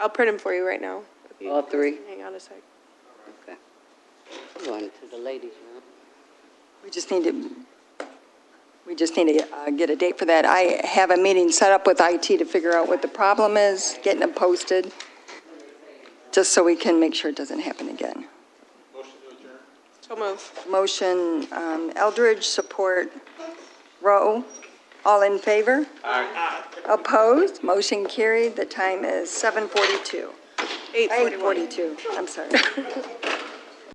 I'll print them for you right now. if you- All three? Hang on a sec. Okay. I'm Going to the ladies' room. We just need to, we just need to uh, get a date for that. I have a meeting set up with IT to figure out what the problem is, getting it posted, just so we can make sure it doesn't happen again. So move. Motion um, Eldridge, support Rowe. All in favor? Aye. Opposed? Motion carried. The time is 7:42. 841. 8:42, I'm sorry.